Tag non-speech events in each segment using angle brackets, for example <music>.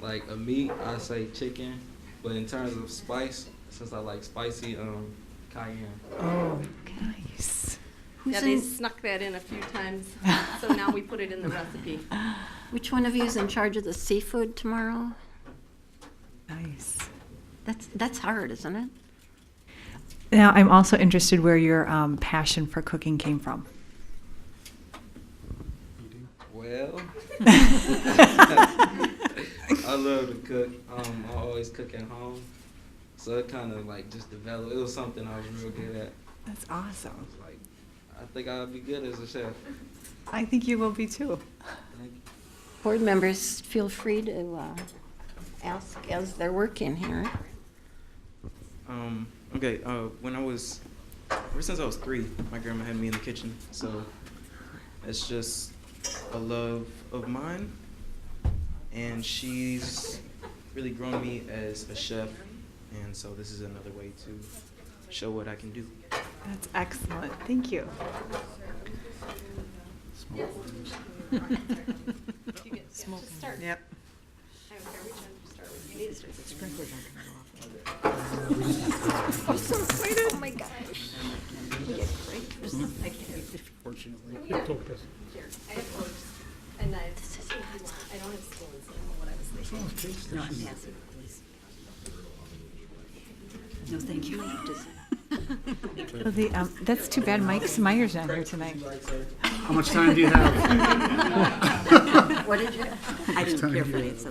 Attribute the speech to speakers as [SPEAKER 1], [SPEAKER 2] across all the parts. [SPEAKER 1] like a meat, I say chicken. But in terms of spice, since I like spicy, um, cayenne.
[SPEAKER 2] Oh, nice.
[SPEAKER 3] Yeah,
[SPEAKER 4] Who's
[SPEAKER 3] they
[SPEAKER 4] in,
[SPEAKER 3] snuck that in a few times,
[SPEAKER 4] <laughs>
[SPEAKER 3] so now we put it in the recipe.
[SPEAKER 4] which one of you is in charge of the seafood tomorrow?
[SPEAKER 2] Nice.
[SPEAKER 4] That's, that's hard, isn't it?
[SPEAKER 2] Now, I'm also interested where your um, passion for cooking came from.
[SPEAKER 1] Well, <laughs> I love to cook. Um, I always cook at home, so it kind of like just developed. It was something I was real good at.
[SPEAKER 2] That's
[SPEAKER 1] I
[SPEAKER 2] awesome.
[SPEAKER 1] was like, I think I'd be good as a chef.
[SPEAKER 2] I think you will be too.
[SPEAKER 1] Thank you.
[SPEAKER 4] Board members, feel free to uh, ask as they're working here.
[SPEAKER 5] Um, okay, uh, when I was, ever since I was three, my grandma had me in the kitchen. So it's just a love of mine. And she's really grown me as a chef. And so this is another way to show what I can do.
[SPEAKER 2] That's excellent. Thank you. Yep.
[SPEAKER 3] And I, I don't have school, so I don't know what I was thinking.
[SPEAKER 4] No, thank you.
[SPEAKER 2] Well, the, um, that's too bad. Mike Meyer's not here tonight.
[SPEAKER 6] How much time do you have? <laughs>
[SPEAKER 4] What did you?
[SPEAKER 7] I didn't
[SPEAKER 6] time
[SPEAKER 7] care
[SPEAKER 6] do
[SPEAKER 7] for
[SPEAKER 6] you
[SPEAKER 7] it, so.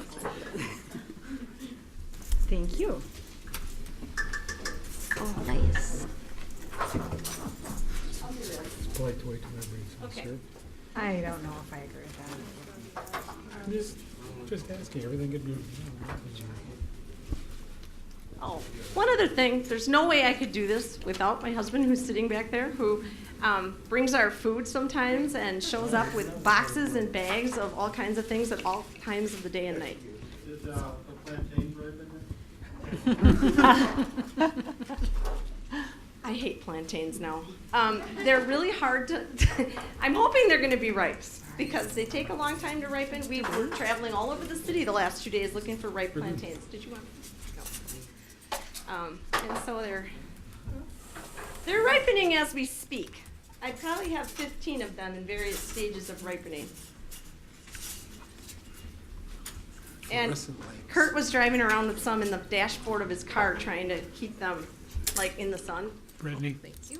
[SPEAKER 2] Thank you.
[SPEAKER 4] Oh, nice.
[SPEAKER 6] Polite to wait till everybody's served.
[SPEAKER 2] I don't know if I agree with that.
[SPEAKER 6] I'm Just, just asking, everything could be.
[SPEAKER 3] Oh, one other thing, there's no way I could do this without my husband who's sitting back there, who um, brings our food sometimes and shows up with boxes and bags of all kinds of things at all times of the day and night.
[SPEAKER 8] Did uh, the plantain ribbon?
[SPEAKER 3] I hate plantains now. Um, they're really hard to, <laughs> I'm hoping they're gonna be ripe, because they take a long time to ripen. We were traveling all over the city the last two days looking for ripe plantains. Did you want? no. Um, and so they're, they're ripening as we speak. I probably have fifteen of them in various stages of ripening. And Kurt was driving around with some in the dashboard of his car trying to keep them like in the sun.
[SPEAKER 6] Brittany,
[SPEAKER 4] Thank you.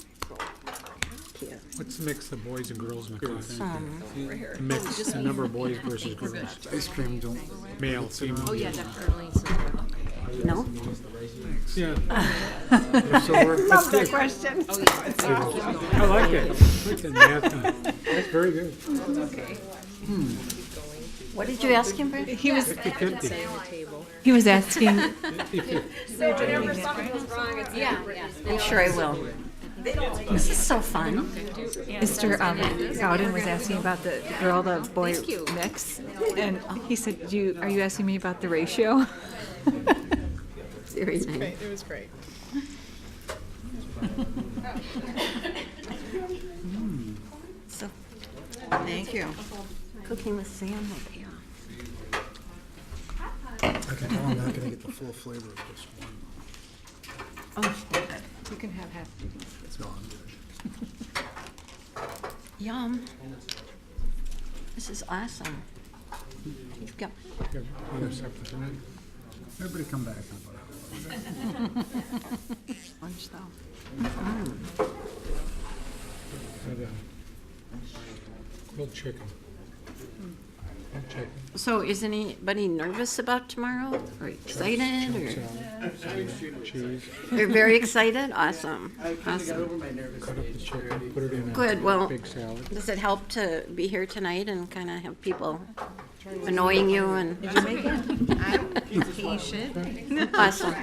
[SPEAKER 6] what's the mix of boys and girls in the coffee?
[SPEAKER 4] Um,
[SPEAKER 6] The mix, the number of boys versus girls. Oh, Ice cream don't. Male, female. Oh, yeah,
[SPEAKER 4] No?
[SPEAKER 6] <laughs> Yeah. So we're- that's good.
[SPEAKER 2] question.
[SPEAKER 6] I like that. I like that math time. That's very good.
[SPEAKER 4] What did you ask him, Brad?
[SPEAKER 2] He was,
[SPEAKER 6] It could be.
[SPEAKER 2] he was asking,
[SPEAKER 3] So whenever something goes wrong, it's yeah,
[SPEAKER 4] I'm sure I will. This is so fun.
[SPEAKER 2] Mr. um, Gowden was asking about the girl, the boy mix. And he said, do you, are you asking me about the ratio? <laughs>
[SPEAKER 4] Very nice.
[SPEAKER 9] It was great.
[SPEAKER 4] So, thank you. Cooking with Sam will pay off.
[SPEAKER 6] I can tell I'm not gonna get the full flavor of this one.
[SPEAKER 4] Oh,
[SPEAKER 2] You can have half.
[SPEAKER 6] No, I'm good.
[SPEAKER 4] Yum. This is awesome. You've got,
[SPEAKER 6] Yeah, we have separate, right? Everybody come back. in about an hour.
[SPEAKER 2] Lunch though.
[SPEAKER 6] Had a Grilled chicken. Grilled chicken.
[SPEAKER 4] so is anybody nervous about tomorrow or excited
[SPEAKER 6] So,
[SPEAKER 4] or?
[SPEAKER 6] Cheese,
[SPEAKER 4] You're very
[SPEAKER 7] <laughs>
[SPEAKER 4] excited? Awesome.
[SPEAKER 7] I kind of got
[SPEAKER 4] Awesome.
[SPEAKER 7] over my nervous
[SPEAKER 6] cut up the
[SPEAKER 7] stage.
[SPEAKER 6] chicken, put it in
[SPEAKER 4] Good,
[SPEAKER 6] a
[SPEAKER 4] well-
[SPEAKER 6] big salad.
[SPEAKER 4] Does it help to be here tonight and kind of have people annoying you and?
[SPEAKER 9] I'm patient.
[SPEAKER 4] Awesome.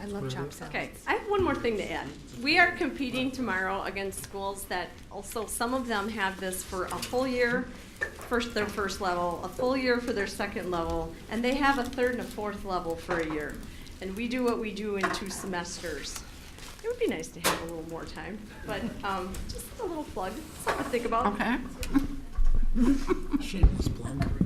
[SPEAKER 9] I love chop salad.
[SPEAKER 3] Okay, I have one more thing to add. We are competing tomorrow against schools that also, some of them have this for a full year, first, their first level, a full year for their second level, and they have a third and a fourth level for a year. And we do what we do in two semesters. It would be nice to have a little more time, but, um, just a little plug, something to think about.
[SPEAKER 4] Okay.
[SPEAKER 6] Shameless plug.